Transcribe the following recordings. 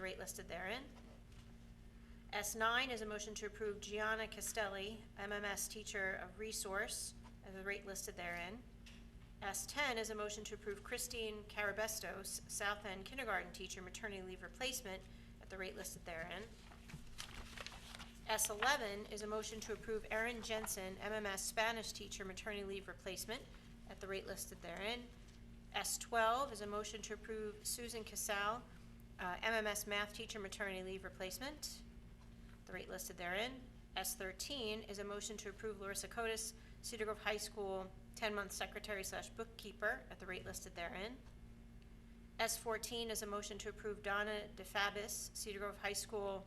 rate listed therein. S nine is a motion to approve Gianna Castelli, MMS teacher of resource, at the rate listed therein. S ten is a motion to approve Christine Carabestos, South End kindergarten teacher maternity leave replacement, at the rate listed therein. S eleven is a motion to approve Erin Jensen, MMS Spanish teacher maternity leave replacement at the rate listed therein. S twelve is a motion to approve Susan Casal, uh, MMS math teacher maternity leave replacement, the rate listed therein. S thirteen is a motion to approve Larissa Cotis, Cedar Grove High School, ten-month secretary slash bookkeeper at the rate listed therein. S fourteen is a motion to approve Donna DeFabis, Cedar Grove High School,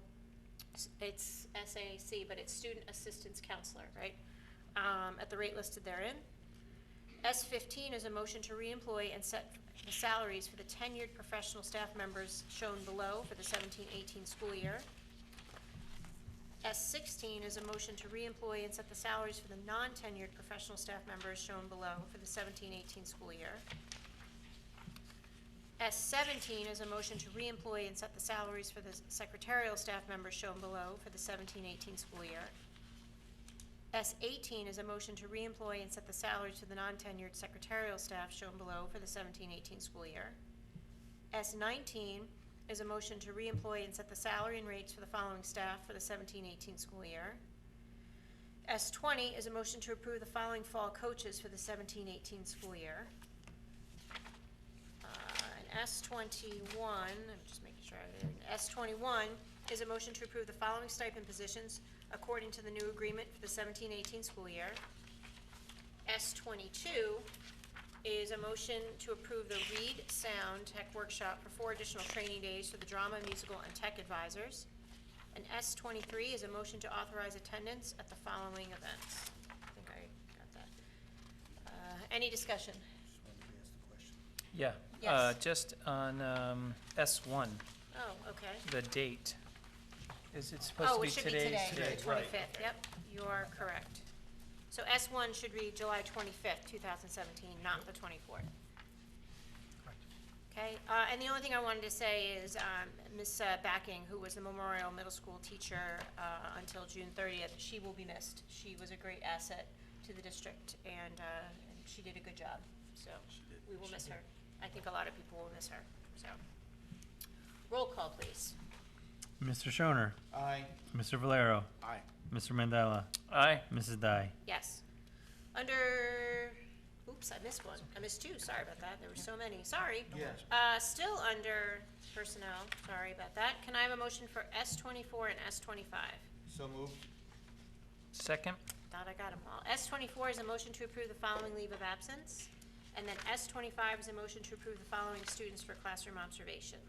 s- it's SAC, but it's Student Assistance Counselor, right? Um, at the rate listed therein. S fifteen is a motion to reemploy and set the salaries for the tenured professional staff members shown below for the 17-18 school year. S sixteen is a motion to reemploy and set the salaries for the non-tenured professional staff members shown below for the 17-18 school year. S seventeen is a motion to reemploy and set the salaries for the secretarial staff members shown below for the 17-18 school year. S eighteen is a motion to reemploy and set the salaries for the non-tenured secretarial staff shown below for the 17-18 school year. S nineteen is a motion to reemploy and set the salary and rates for the following staff for the 17-18 school year. S twenty is a motion to approve the following fall coaches for the 17-18 school year. Uh, And S twenty-one, I'm just making sure, I didn't- S twenty-one is a motion to approve the following stipend positions according to the new agreement for the 17-18 school year. S twenty-two is a motion to approve the Read Sound Tech Workshop for four additional training days for the drama, musical, and tech advisors. And S twenty-three is a motion to authorize attendance at the following events. I think I got that. Uh, Any discussion? Just wanted to ask the question. Yeah, uh, Yes. just on, um, S one, Oh, okay. the date. Is it supposed to Oh, be today? it should be today, the Today, right. twenty-fifth, yep, you are correct. So S one should read July twenty-fifth, two thousand seventeen, not the twenty-fourth. Okay, uh, and the only thing I wanted to say is, um, Ms. uh, Backing, who was the Memorial Middle School teacher, uh, until June thirtieth, she will be missed. She was a great asset to the district and, uh, and she did a good job, so we will miss her. I think a lot of people will miss her, so. Roll call, please. Mr. Schoner, Aye. Mr. Valero, Aye. Mr. Mandela, Aye, Mrs. Dai. Yes. Under, oops, I missed one. I missed two, sorry about that. There were so many, sorry. Yes. Uh, still under personnel, sorry about that. Can I have a motion for S twenty-four and S twenty-five? So moved. second, Thought I got them all. S twenty-four is a motion to approve the following leave of absence. And then S twenty-five is a motion to approve the following students for classroom observations.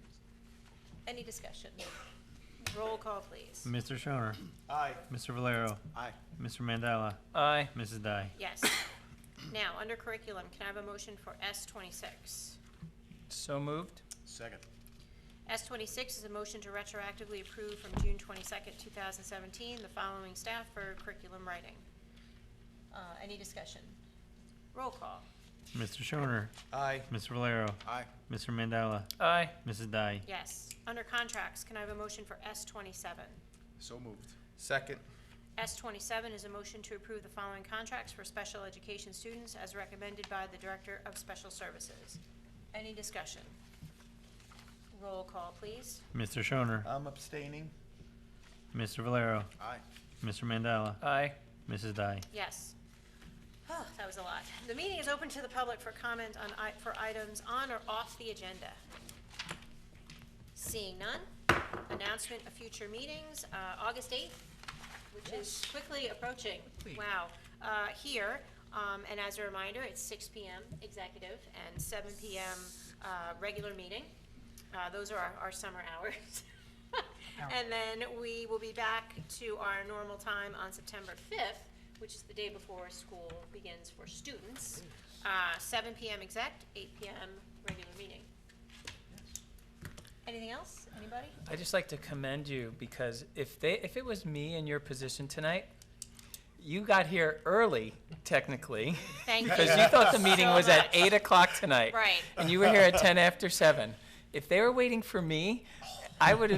Any discussion? Roll call, please. Mr. Schoner, Aye. Mr. Valero, Aye. Mr. Mandela, aye, Mrs. Dai. Yes. Now, under curriculum, can I have a motion for S twenty-six? so moved, Second. S twenty-six is a motion to retroactively approve from June twenty-second, two thousand seventeen, the following staff for curriculum writing. Uh, any discussion? Roll call. Mr. Schoner, Aye. Mr. Valero, Aye. Mr. Mandela, aye, Mrs. Dai. Yes. Under contracts, can I have a motion for S twenty-seven? So moved. Second. S twenty-seven is a motion to approve the following contracts for special education students as recommended by the Director of Special Services. Any discussion? Roll call, please. Mr. Schoner, I'm abstaining. Mr. Valero, Aye. Mr. Mandela, aye, Mrs. Dai. Yes. Oh, that was a lot. The meeting is open to the public for comment on, i- for items on or off the agenda. Seeing none, announcement of future meetings, uh, August 8th, which is quickly approaching. Wow. Uh, Here, um, and as a reminder, it's 6 PM executive and 7 PM uh, regular meeting. Uh, Those are our- our summer hours. And then we will be back to our normal time on September 5th, which is the day before school begins for students. Uh, 7 PM exec, 8 PM regular meeting. Anything else? Anybody? i just like to commend you, because if they, if it was me in your position tonight, you got here early, technically. Thank Because you you thought the meeting so was at much. eight o'clock tonight. Right. And you were here at ten after seven. If they were waiting for me, I would have